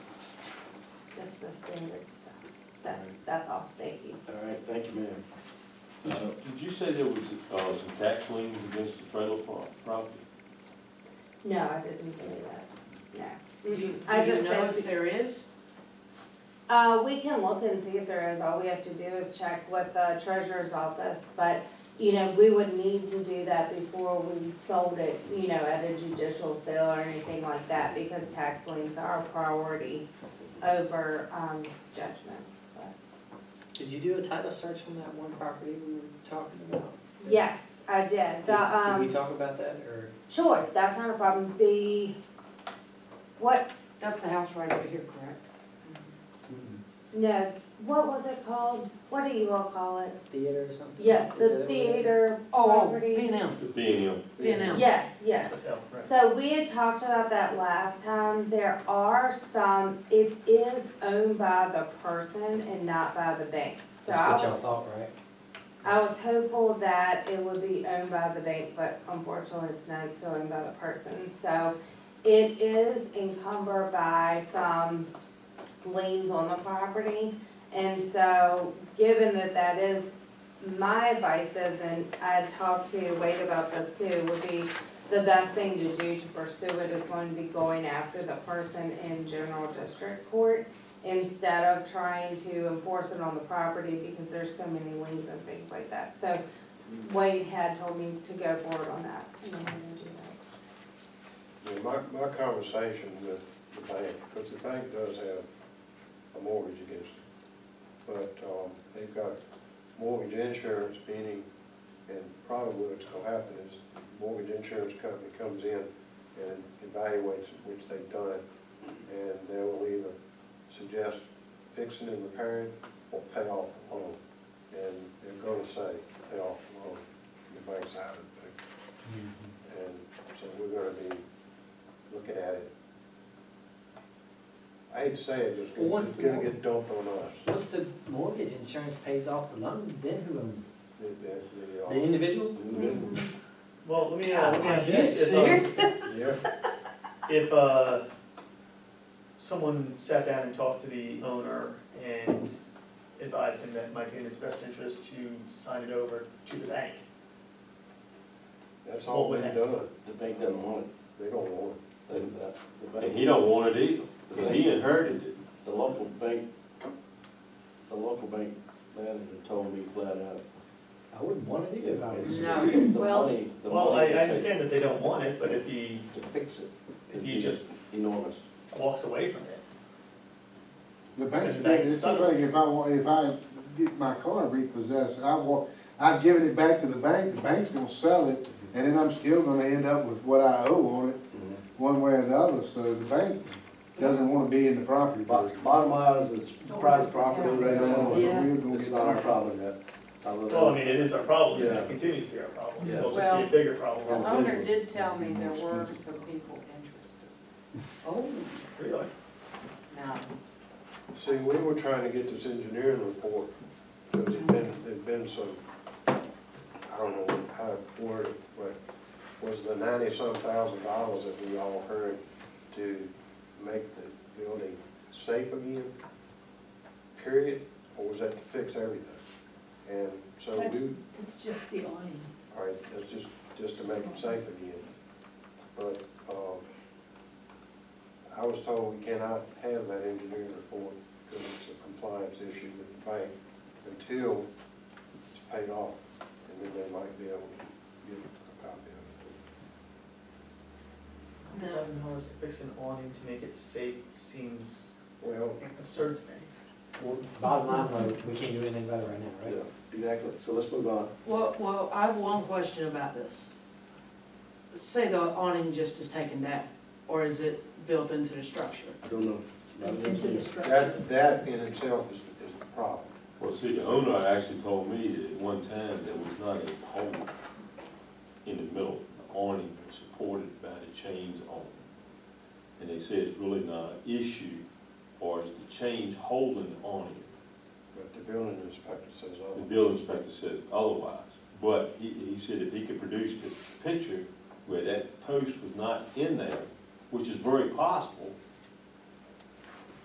the standard stuff. So Right. that's all, thank you. All right, thank you, ma'am. Uh, Did you say there was, uh, some tax liens against the trailer pro- property? No, I didn't do that, Do you, no. I do you just know said, if there is? uh, we can look and see if there is, all we have to do is check with the treasurer's office. But, you know, we would need to do that before we sold it, you know, at a judicial sale or anything like that because tax liens are a priority over, um, judgments, but. Did you do a title search on that one property we were talking about? Yes, I did, the, Did- Did we um, talk about that, or? sure, that's not a problem, the, what, That's the house right over here, correct? Mm-hmm. no, what was it called? What do you all call it? Theater or something? Yes, Is that what the it is? theater Oh, oh, property. B and M, Being, um, B and M. Yes, yes. So we had talked about that last time, there are some, it is owned by the person and not by the bank. So I That's what y'all was, thought, right? I was hopeful that it would be owned by the bank, but unfortunately, it's not, it's owned by the person, so it is encumbered by some liens on the property. And so, given that that is, my advice is, and I talked to Wade about this too, would be the best thing to do to pursue it is going to be going after the person in general district court instead of trying to enforce it on the property because there's so many liens and things like that. So Wade had told me to go forward on that. and I'm gonna do that. Yeah, my, my conversation with the bank, because the bank does have a mortgage against it. But, um, they've got mortgage insurance, meaning, and probably what's gonna happen is mortgage insurance company comes in and evaluates which they've done, and they will either suggest fixing and repairing or pay off the loan. And they're gonna say, pay off the loan, the bank's out of it. And so we're gonna be looking at it. I hate to say it, it's Well, gonna, once it's gonna the- get dumped on us. Once the mortgage insurance pays off the loan, then who owns it? The- the- the, uh, The individual? individual. Well, let me, uh, let me ask you Are you this, if, um, Yeah, if, uh, someone sat down and talked to the owner and advised him that it might be in his best interest to sign it over to the bank, that's all been done. The bank doesn't want They don't want it, They- uh, the, the and bank, he don't want it either, because he inherited it. the local bank, the local bank manager told me flat out. I wouldn't want to do it if I was. No. The Well- money, the well, I, money I it takes understand that they don't want it, but if he, to fix it if he just enormous. walks away from it, The bank's, The bank's it's the stuck. thing, if I want, if I get my car repossessed, I want, I've given it back to the bank, the bank's gonna sell it, and then I'm still gonna end up with what I owe on it, Mm-hmm. one way or the other, so the bank doesn't wanna be in the property Bo- business. Bottom line is, it's private property right now, and Yeah. We're gonna it's get not our our- problem yet. I live- well, I mean, it is our problem, and Yeah. it continues to be our problem, Yeah. it'll just be a Well- bigger problem, Well- The owner did tell me there were some people interested. Oh, really. no. it. See, we were trying to get this engineering report, because there'd been, there'd been some, I don't know how to word it, but was the ninety-some thousand dollars that we all heard to make the building safe again, period, or was that to fix everything? And so we. That's- It's just the awning. All right, that's just, just to make it safe again. But, um, I was told we cannot have that engineering report because it's a compliance issue with the bank until it's paid off. And then they might be able to get a copy of No. Thousand dollars to fix an awning to make it safe seems it. Well, absurd to me. Well, Bottom line, though, we can't do anything about it right now, right? Yeah, exactly, so let's move on. Well, well, I have one question about this. Say the awning just is taken down, or is it built into the structure? Don't know. Built into the structure. that, that in itself is, is the problem. Well, see, the owner actually told me that at one time there was not a hole in the middle, the awning was supported by the chains on it. And they said it's really not an issue, or it's the chains holding the awning. But the building inspector says, The oh, building inspector says otherwise, but he, he said if he could produce the picture where that post was not in there, which is very possible,